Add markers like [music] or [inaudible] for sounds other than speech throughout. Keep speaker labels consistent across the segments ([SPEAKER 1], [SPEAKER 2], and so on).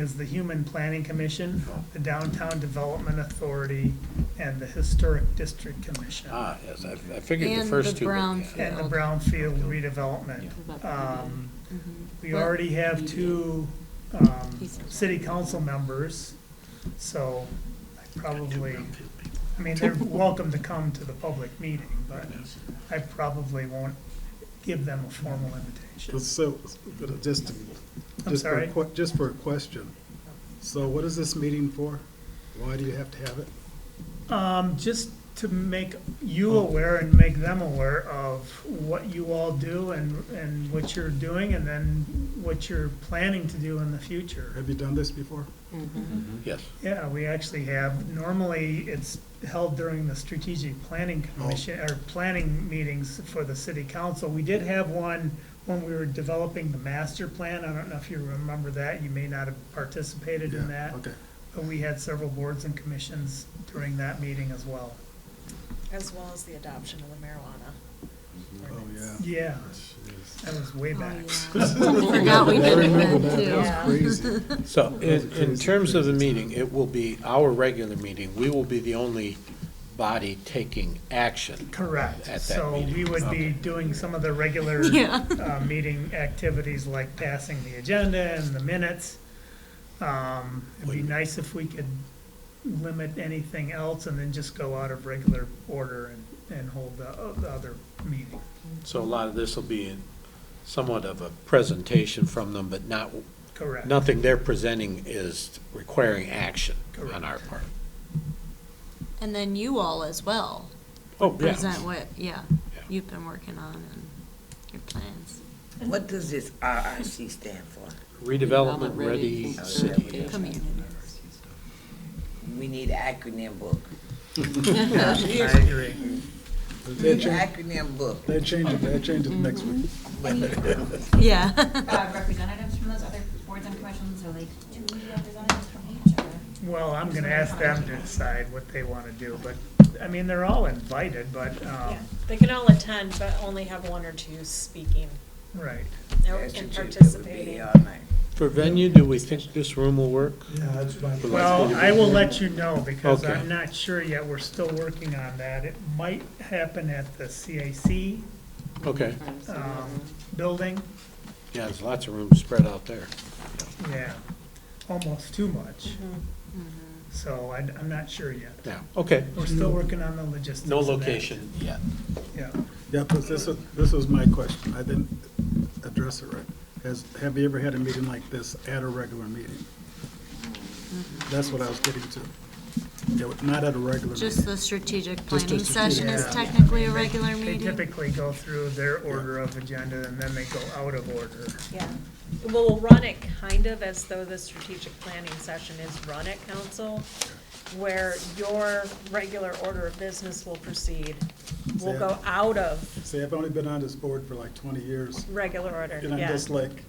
[SPEAKER 1] is the Human Planning Commission, the Downtown Development Authority, and the Historic District Commission,
[SPEAKER 2] Ah, yes, I I figured the
[SPEAKER 3] And
[SPEAKER 2] first
[SPEAKER 3] the
[SPEAKER 2] two. would be-
[SPEAKER 3] brownfield.
[SPEAKER 1] and the Brownfield redevelopment. Um,
[SPEAKER 3] Mm-hmm.
[SPEAKER 1] We already have two um, city council members, so I probably, I mean, they're welcome to come to the public meeting, but I probably won't give them a formal invitation.
[SPEAKER 4] So, but just, to-
[SPEAKER 1] I'm
[SPEAKER 4] just for, a
[SPEAKER 1] sorry?
[SPEAKER 4] que- just for a question. So what is this meeting for? Why do you have to have it?
[SPEAKER 1] Um, Just to make
[SPEAKER 4] Oh.
[SPEAKER 1] you aware and make them aware of what you all do and, and what you're doing, and then what you're planning to do in the future.
[SPEAKER 4] Have you done this before?
[SPEAKER 2] Yes,
[SPEAKER 1] Yeah, we actually have, normally it's held during the strategic planning
[SPEAKER 4] Oh.
[SPEAKER 1] commission, or planning meetings for the city council. We did have one when we were developing the master plan, I don't know if you remember that, you may not have participated
[SPEAKER 4] Yeah,
[SPEAKER 1] in that.
[SPEAKER 4] Okay.
[SPEAKER 1] But we had several boards and commissions during that meeting as well.
[SPEAKER 5] As well as the adoption of the marijuana.
[SPEAKER 4] Oh, yeah.
[SPEAKER 1] Yeah,
[SPEAKER 4] Jeez.
[SPEAKER 1] that was way back.
[SPEAKER 3] Forgot we
[SPEAKER 4] I
[SPEAKER 3] did it
[SPEAKER 4] remember
[SPEAKER 3] then,
[SPEAKER 4] that.
[SPEAKER 3] too.
[SPEAKER 4] That was crazy.
[SPEAKER 2] so [laughs] in, in
[SPEAKER 4] Crazy,
[SPEAKER 2] terms of the
[SPEAKER 4] crazy.
[SPEAKER 2] meeting, it will be our regular meeting. We will be the only body taking action.
[SPEAKER 1] Correct,
[SPEAKER 2] At that
[SPEAKER 1] so
[SPEAKER 2] meeting,
[SPEAKER 1] we would be
[SPEAKER 2] okay.
[SPEAKER 1] doing some of the regular
[SPEAKER 3] Yeah.
[SPEAKER 1] uh, meeting activities like passing the agenda and the minutes. Um, It'd be nice if we could limit anything else and then just go out of regular order and, and hold the o- the other meeting.
[SPEAKER 2] So a lot of this will be in somewhat of a presentation from them, but not,
[SPEAKER 1] Correct.
[SPEAKER 2] nothing they're presenting is requiring action on our part.
[SPEAKER 3] [laughs] And then you all as well,
[SPEAKER 2] Oh,
[SPEAKER 3] present
[SPEAKER 2] yeah.
[SPEAKER 3] what, yeah,
[SPEAKER 2] Yeah.
[SPEAKER 3] you've been working on and your plans.
[SPEAKER 6] What does this RRC stand for?
[SPEAKER 2] Redevelopment Ready
[SPEAKER 6] Ready
[SPEAKER 2] City.
[SPEAKER 6] City.
[SPEAKER 3] Come here.
[SPEAKER 6] We need an acronym book.
[SPEAKER 1] Accurate.
[SPEAKER 6] We need an acronym book.
[SPEAKER 4] That changes, that changes next week.
[SPEAKER 3] Yeah.
[SPEAKER 7] uh, representatives from those other boards and commissions, or like two representatives from each, or?
[SPEAKER 1] Well, I'm gonna ask them to decide what they want to do, but, I mean, they're all invited, but, um,
[SPEAKER 5] They can all attend, but only have one or two speaking
[SPEAKER 1] right.
[SPEAKER 6] That's
[SPEAKER 5] and
[SPEAKER 6] what you- that would be uh,
[SPEAKER 5] participating.
[SPEAKER 6] all night.
[SPEAKER 2] For venue, do we think this room will work?
[SPEAKER 1] Well, I will let you know because
[SPEAKER 2] Okay.
[SPEAKER 1] I'm not sure yet. We're still working on that. It might happen at the CAC
[SPEAKER 2] Okay,
[SPEAKER 1] um, building.
[SPEAKER 2] yeah, there's lots of room spread out there.
[SPEAKER 1] Yeah, almost too much. So I, am not sure yet.
[SPEAKER 2] Yeah, okay.
[SPEAKER 1] We're still working on the logistics.
[SPEAKER 2] No
[SPEAKER 1] of that.
[SPEAKER 2] location yet.
[SPEAKER 1] Yeah.
[SPEAKER 4] Yeah, but this was, this was my question. I didn't address it right. Has, have you ever had a meeting like this at a regular meeting? That's what I was getting to. Yeah, Not at a
[SPEAKER 3] [laughs]
[SPEAKER 4] regular meeting.
[SPEAKER 3] Just the strategic planning
[SPEAKER 4] strategic-
[SPEAKER 3] session is
[SPEAKER 1] Yeah.
[SPEAKER 3] technically a regular
[SPEAKER 1] They
[SPEAKER 3] meeting.
[SPEAKER 1] typically go through their order of agenda and then they go out of order.
[SPEAKER 5] Yeah. We'll run it kind of as though the strategic planning session is run at council, where your regular order of business will proceed. We'll go out of
[SPEAKER 4] See, I've only been on this board for like twenty years,
[SPEAKER 5] regular order,
[SPEAKER 4] and I'm
[SPEAKER 5] yeah.
[SPEAKER 4] just like,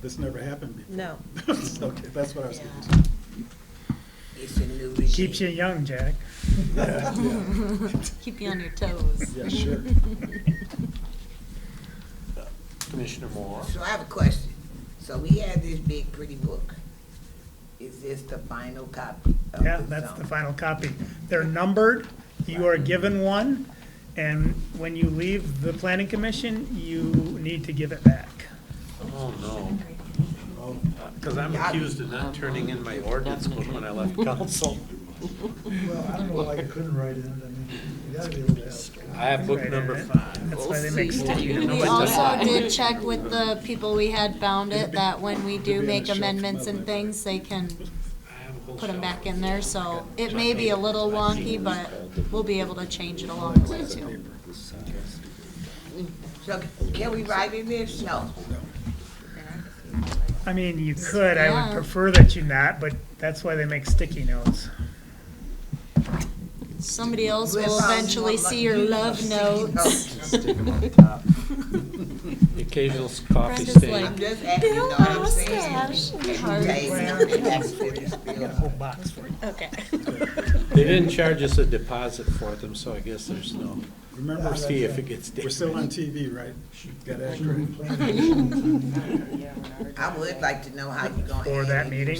[SPEAKER 4] this never happened before.
[SPEAKER 5] No.
[SPEAKER 4] [laughs] Okay, that's what I was getting to.
[SPEAKER 6] It's a new
[SPEAKER 1] Keeps you
[SPEAKER 6] regime.
[SPEAKER 1] young, Jack.
[SPEAKER 3] Keep you on your toes.
[SPEAKER 4] Yeah,
[SPEAKER 5] [laughs]
[SPEAKER 4] sure.
[SPEAKER 2] Commissioner Moore?
[SPEAKER 6] So I have a question. So we had this big pretty book. Is this the final copy of
[SPEAKER 1] Yeah,
[SPEAKER 6] the
[SPEAKER 1] that's the
[SPEAKER 6] zone?
[SPEAKER 1] final copy. They're numbered, you are given one, and when you leave the planning commission, you need to give it back.
[SPEAKER 2] Oh, no. Because I'm accused of not turning in my ordinance book when I [laughs] left council.
[SPEAKER 8] Well, I don't know why you couldn't write in it, I mean, you gotta be able to ask.
[SPEAKER 2] I have book number five.
[SPEAKER 1] That's why they make
[SPEAKER 3] We
[SPEAKER 2] Nobody does
[SPEAKER 3] also
[SPEAKER 2] that.
[SPEAKER 3] did check with the people we had bound it, that when we do make amendments and things, they can put them back in there, so it may be a little wonky, but we'll be able to change it along the way too.
[SPEAKER 6] So can we write in this? No.
[SPEAKER 1] I mean, you could, I would
[SPEAKER 3] Yeah.
[SPEAKER 1] prefer that you not, but that's why they make sticky notes.
[SPEAKER 3] Somebody else will eventually see your
[SPEAKER 6] [laughs]
[SPEAKER 3] love notes.
[SPEAKER 2] The Occasional coffee
[SPEAKER 3] Brenda's
[SPEAKER 2] stain.
[SPEAKER 3] like-
[SPEAKER 6] I'm just asking, you know what I'm saying?
[SPEAKER 3] Heart.
[SPEAKER 1] box for you.
[SPEAKER 3] Okay.
[SPEAKER 2] They didn't charge us a deposit for them, so I guess there's no
[SPEAKER 4] Remember,
[SPEAKER 2] fee if it gets damaged.
[SPEAKER 4] we're still on TV, right? Got to act right.
[SPEAKER 6] I would like to know how you gonna.
[SPEAKER 1] For that
[SPEAKER 6] handle
[SPEAKER 1] meeting?